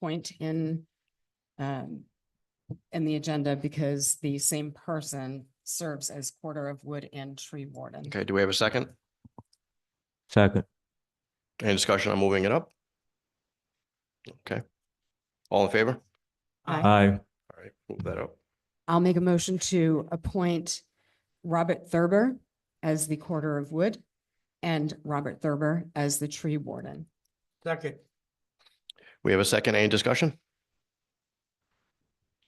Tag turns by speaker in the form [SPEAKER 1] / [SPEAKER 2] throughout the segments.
[SPEAKER 1] point in um in the agenda because the same person serves as quarter of wood and tree warden.
[SPEAKER 2] Okay, do we have a second?
[SPEAKER 3] Second.
[SPEAKER 2] Any discussion on moving it up? Okay. All in favor?
[SPEAKER 1] I,
[SPEAKER 3] Aye.
[SPEAKER 2] All right, move that up.
[SPEAKER 1] I'll make a motion to appoint Robert Thurber as the quarter of wood and Robert Thurber as the tree warden.
[SPEAKER 4] Second.
[SPEAKER 2] We have a second. Any discussion?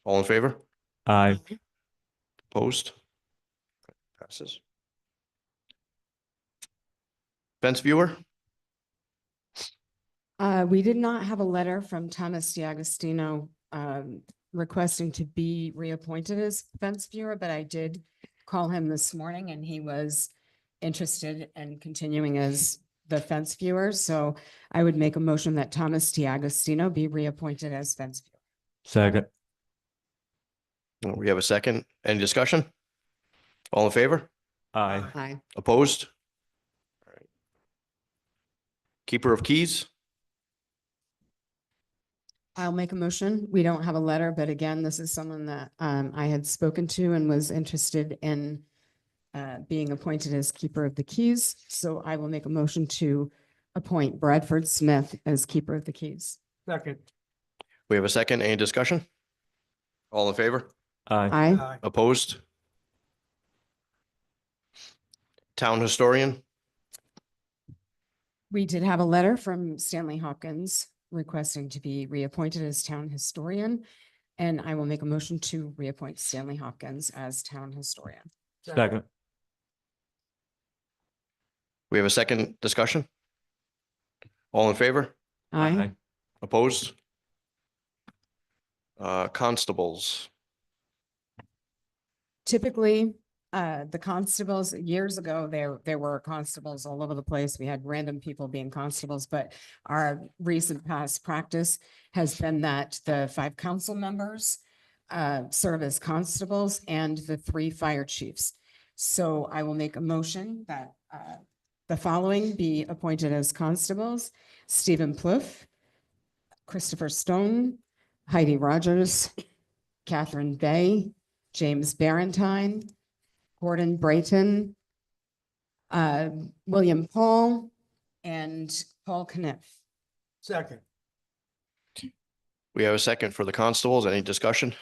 [SPEAKER 2] All in favor?
[SPEAKER 3] Aye.
[SPEAKER 2] Opposed? Passes. Fence viewer?
[SPEAKER 1] Uh, we did not have a letter from Thomas D'Agostino um requesting to be reappointed as fence viewer, but I did call him this morning and he was interested in continuing as the fence viewer. So I would make a motion that Thomas D'Agostino be reappointed as fence viewer.
[SPEAKER 3] Second.
[SPEAKER 2] We have a second. Any discussion? All in favor?
[SPEAKER 3] Aye.
[SPEAKER 1] Hi,
[SPEAKER 2] Opposed? All right. Keeper of keys?
[SPEAKER 1] I'll make a motion. We don't have a letter, but again, this is someone that um I had spoken to and was interested in uh being appointed as keeper of the keys. So I will make a motion to appoint Bradford Smith as keeper of the keys.
[SPEAKER 4] Second.
[SPEAKER 2] We have a second. Any discussion? All in favor?
[SPEAKER 3] Aye.
[SPEAKER 1] Aye.
[SPEAKER 4] Aye.
[SPEAKER 2] Opposed? Town historian,
[SPEAKER 1] We did have a letter from Stanley Hopkins requesting to be reappointed as town historian. And I will make a motion to reappoint Stanley Hopkins as town historian.
[SPEAKER 3] Second.
[SPEAKER 2] we have a second discussion? All in favor?
[SPEAKER 1] Aye.
[SPEAKER 2] Opposed? Uh, constables,
[SPEAKER 1] typically, uh, the constables, years ago, there, there were constables all over the place. We had random people being constables, but our recent past practice has been that the five council members uh, serve as constables and the three fire chiefs. So I will make a motion that uh, the following be appointed as constables. Stephen Plouffe, Christopher Stone, Heidi Rogers, Catherine Bay, James Barentine, Gordon Brayton, uh, William Paul, and Paul Kniff.
[SPEAKER 4] Second.
[SPEAKER 2] we have a second for the constables. Any discussion?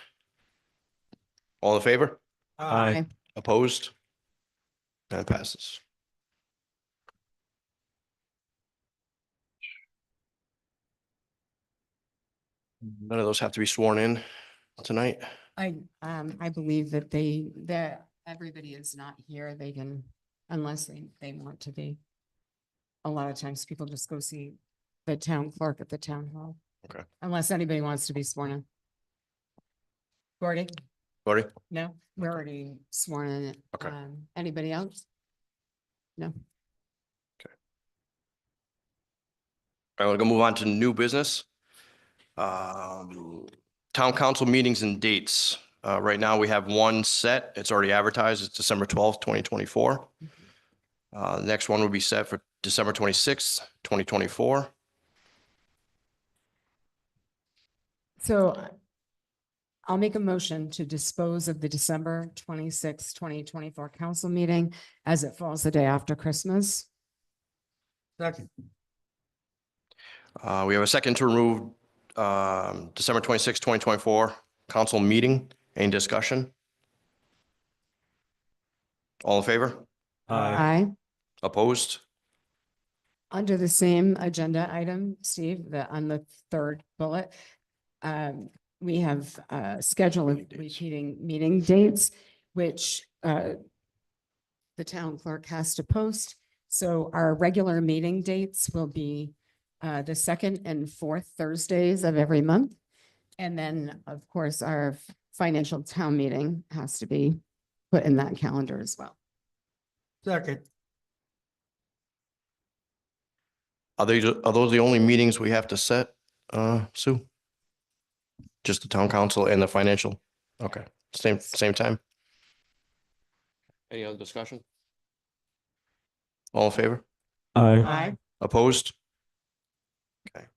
[SPEAKER 2] All in favor?
[SPEAKER 3] Aye.
[SPEAKER 2] Opposed? That passes. None of those have to be sworn in tonight.
[SPEAKER 1] I, um, I believe that they, that everybody is not here. They can, unless they, they want to be. A lot of times people just go see the town clerk at the town hall.
[SPEAKER 2] Okay.
[SPEAKER 1] Unless anybody wants to be sworn in. Gordy?
[SPEAKER 2] Gordy?
[SPEAKER 1] No, we're already sworn in.
[SPEAKER 2] Okay.
[SPEAKER 1] Um, Anybody else? No.
[SPEAKER 2] All right, we're gonna move on to new business. Um, Town council meetings and dates. Uh, Right now, we have one set. It's already advertised. It's December twelfth, twenty twenty-four. Uh, The next one will be set for December twenty-sixth, twenty twenty-four.
[SPEAKER 1] So I- I'll make a motion to dispose of the December twenty twenty-four council meeting as it falls the day after Christmas.
[SPEAKER 4] Second.
[SPEAKER 2] Uh, we have a second to remove, um, December twenty-sixth, twenty twenty-four, council meeting. Any discussion? All in favor?
[SPEAKER 3] Aye.
[SPEAKER 1] Aye.
[SPEAKER 2] Opposed?
[SPEAKER 1] Under the same agenda item, Steve, the, on the third bullet, um, we have, uh, schedule of
[SPEAKER 2] Meeting dates.
[SPEAKER 1] repeating meeting dates, which, uh, the town clerk has to post. So our regular meeting dates will be, uh, the second and fourth Thursdays of every month. And then, of course, our financial town meeting has to be put in that calendar as well.
[SPEAKER 4] Second.
[SPEAKER 2] Are they, are those the only meetings we have to set, uh, Sue? Just the town council and the financial? Okay, same, same time? Any other discussion? All in favor?
[SPEAKER 3] Aye.
[SPEAKER 4] Aye.
[SPEAKER 2] Opposed? Okay.